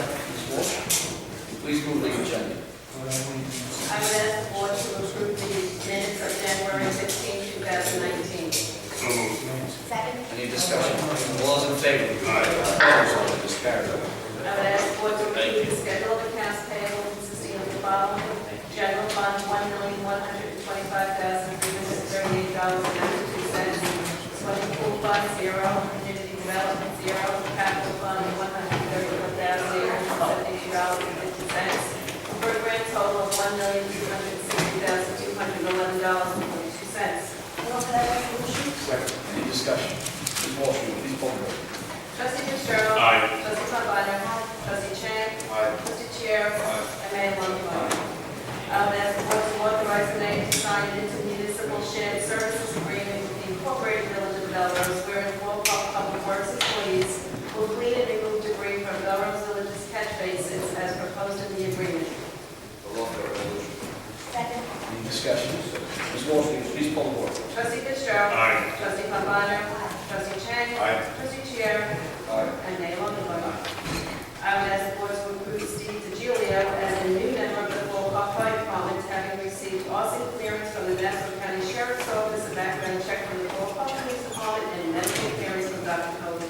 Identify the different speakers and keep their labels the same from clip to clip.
Speaker 1: Ms. Walsh, please move the agenda.
Speaker 2: I would ask the board to approve the minutes of January 16, 2019.
Speaker 3: So moved.
Speaker 2: Second.
Speaker 1: Any discussion? All those in favor? Opposed? It is carried.
Speaker 2: I would ask the board to approve the schedule of accounts payable consisting of the following. General fund, $1,125,338.92. Swimming pool fund, zero. Community development, zero. Capital fund, $131,078.50. For a grand total of $1,260,211.42.
Speaker 1: Any discussion? Ms. Walsh, will you please poll the board.
Speaker 2: Trustee Fitzgerald.
Speaker 3: Aye.
Speaker 2: Trustee Pambana. Trustee Chang.
Speaker 3: Aye.
Speaker 2: Trustee Chair. And Mayor Longfellow. Um, as the board to authorize the mayor to sign an intermunicipal shared services agreement with the Incorporated Village of Melrose, wherein four pub- public works employees will clean and remove debris from Melrose Village's catch basins as proposed in the agreement.
Speaker 1: We'll offer a resolution.
Speaker 2: Second.
Speaker 1: Any discussion? Ms. Walsh, will you please poll the board.
Speaker 2: Trustee Fitzgerald.
Speaker 3: Aye.
Speaker 2: Trustee Pambana. Trustee Chang.
Speaker 3: Aye.
Speaker 2: Trustee Chair. And Mayor Longfellow. I would ask the board to approve Steve DiGilio as a new member of the Fall Park Fire Department, having received OSI clearance from the Nassau County Sheriff's Office, a background check from the Fall Park Police Department, and medical clearance from Dr. Cody. I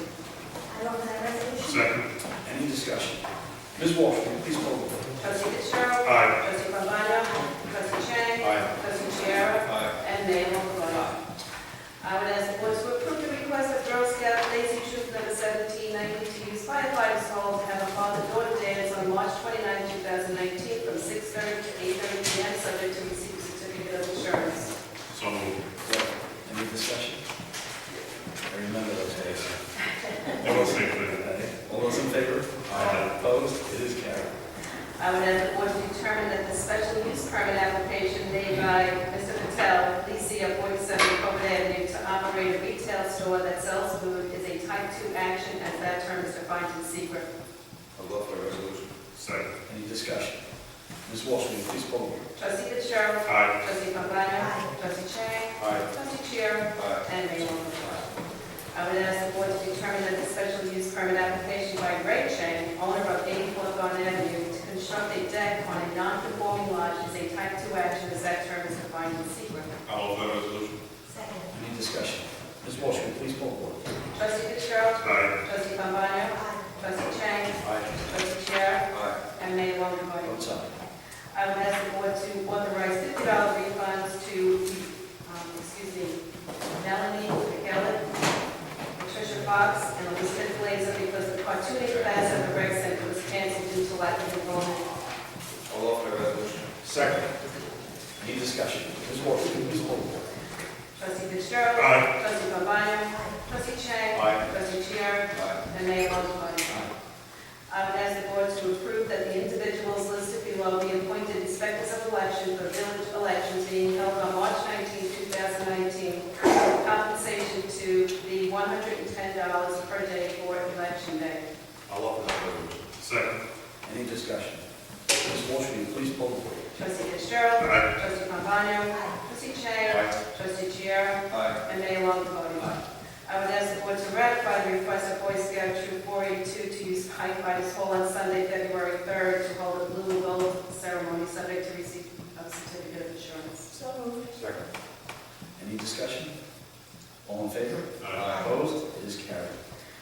Speaker 2: offer that resolution.
Speaker 3: Second.
Speaker 1: Any discussion? Ms. Walsh, will you please poll the board.
Speaker 2: Trustee Fitzgerald.
Speaker 3: Aye.
Speaker 2: Trustee Pambana. Trustee Chang.
Speaker 3: Aye.
Speaker 2: Trustee Chiara.
Speaker 3: Aye.
Speaker 2: And Mayor Longfellow. I would ask the board to approve the request of Girl Scout Lazy Troop Number 1790 to use firefighters' hall to have a father-daughter dance on March 29, 2019, from 6:30 to 8:30 p.m., subject to receipt of certificate of insurance.
Speaker 3: So moved.
Speaker 1: Any discussion? I remember those days.
Speaker 3: It was seconded.
Speaker 1: All those in favor?
Speaker 3: Aye.
Speaker 1: Opposed? It is carried.
Speaker 2: I would ask the board to determine that the special use permit application made by Mr. Patel, Lisi of 47 Covent Avenue, to operate a retail store that sells food is a type 2 action as that term is defined in secret.
Speaker 1: I'll offer a resolution.
Speaker 3: Second.
Speaker 1: Any discussion? Ms. Walsh, will you please poll the board.
Speaker 2: Trustee Fitzgerald.
Speaker 3: Aye.
Speaker 2: Trustee Pambana. Trustee Chang.
Speaker 3: Aye.
Speaker 2: Trustee Chair.
Speaker 3: Aye.
Speaker 2: And Mayor Longfellow. I would ask the board to determine that the special use permit application by Greg Chang, owner of 84 Garden Avenue, to construct a deck on a non-conforming lot is a type 2 action as that term is defined in secret.
Speaker 3: I'll offer a resolution.
Speaker 2: Second.
Speaker 1: Any discussion? Ms. Walsh, will you please poll the board.
Speaker 2: Trustee Fitzgerald.
Speaker 3: Aye.
Speaker 2: Trustee Pambana. Trustee Chang.
Speaker 3: Aye.
Speaker 2: Trustee Chair.
Speaker 3: Aye.
Speaker 2: And Mayor Longfellow.
Speaker 1: Votes aye.
Speaker 2: I would ask the board to authorize fifty dollar refunds to, um, excuse me, Melanie McGillis, Patricia Fox, and Elizabeth Blazer because the cartooning class at the rec center was canceled due to lack of enrollment.
Speaker 1: I'll offer a resolution. Second. Any discussion? Ms. Walsh, will you please poll the board.
Speaker 2: Trustee Fitzgerald.
Speaker 3: Aye.
Speaker 2: Trustee Pambana. Trustee Chang.
Speaker 3: Aye.
Speaker 2: Trustee Chair. And Mayor Longfellow. Um, I would ask the board to approve that the individuals listed below be appointed inspectors of election for village elections being held on March 19, 2019, with compensation to the $110 per day for election day.
Speaker 3: I'll offer that resolution. Second.
Speaker 1: Any discussion? Ms. Walsh, will you please poll the board?
Speaker 2: Trustee Fitzgerald.
Speaker 3: Aye.
Speaker 2: Trustee Pombana. Trustee Chang.
Speaker 3: Aye.
Speaker 2: Trustee Chiara.
Speaker 3: Aye.
Speaker 2: And Mayor Longfellow. I would ask the board to ratify the request of Boy Scout Troop 482 to use firefighters hall on Sunday, February 3rd, to hold a blue and gold ceremony subject to receipt of certificate of insurance.
Speaker 4: So moved.
Speaker 3: Second.
Speaker 1: Any discussion? All in favor?
Speaker 3: Aye.
Speaker 1: Opposed? It is carried.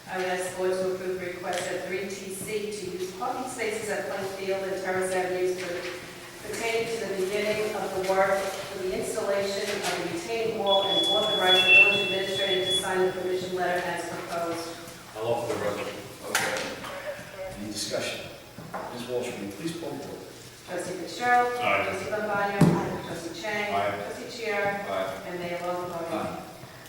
Speaker 2: I would ask the board to approve the request at 3TC to use parking spaces at Plum Field and Terrace Avenues for- pertaining to the beginning of the work for the installation of a retaining wall and authorize the village administrator to sign the permission letter as proposed.
Speaker 3: I'll offer the resolution.
Speaker 1: Any discussion? Ms. Walsh, will you please poll the board?
Speaker 2: Trustee Fitzgerald.
Speaker 3: Aye.
Speaker 2: Trustee Pambana. Trustee Chang.
Speaker 3: Aye.
Speaker 2: Trustee Chair.
Speaker 3: Aye.
Speaker 2: And Mayor Longfellow.
Speaker 1: Aye.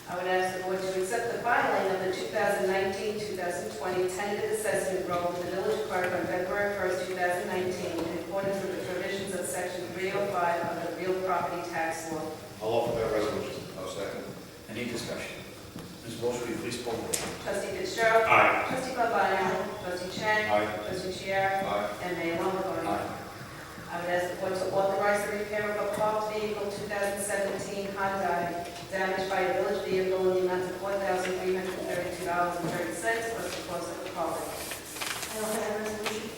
Speaker 2: I would ask the board to accept the filing of the 2019-2020 tentative assessment roll to the village clerk on February 1st, 2019, in accordance with the provisions of Section 305 of the real property tax law.
Speaker 3: I'll offer that resolution. I'll second.
Speaker 1: Any discussion? Ms. Walsh, will you please poll the board?
Speaker 2: Trustee Fitzgerald.
Speaker 3: Aye.
Speaker 2: Trustee Pambana. Trustee Chang.
Speaker 3: Aye.
Speaker 2: Trustee Chair.
Speaker 3: Aye.
Speaker 2: And Mayor Longfellow. I would ask the board to authorize the repair of a parked vehicle 2017 Honda damaged by a village vehicle in the amount of $4,332.30 plus the cost of the car.
Speaker 4: I offer that resolution.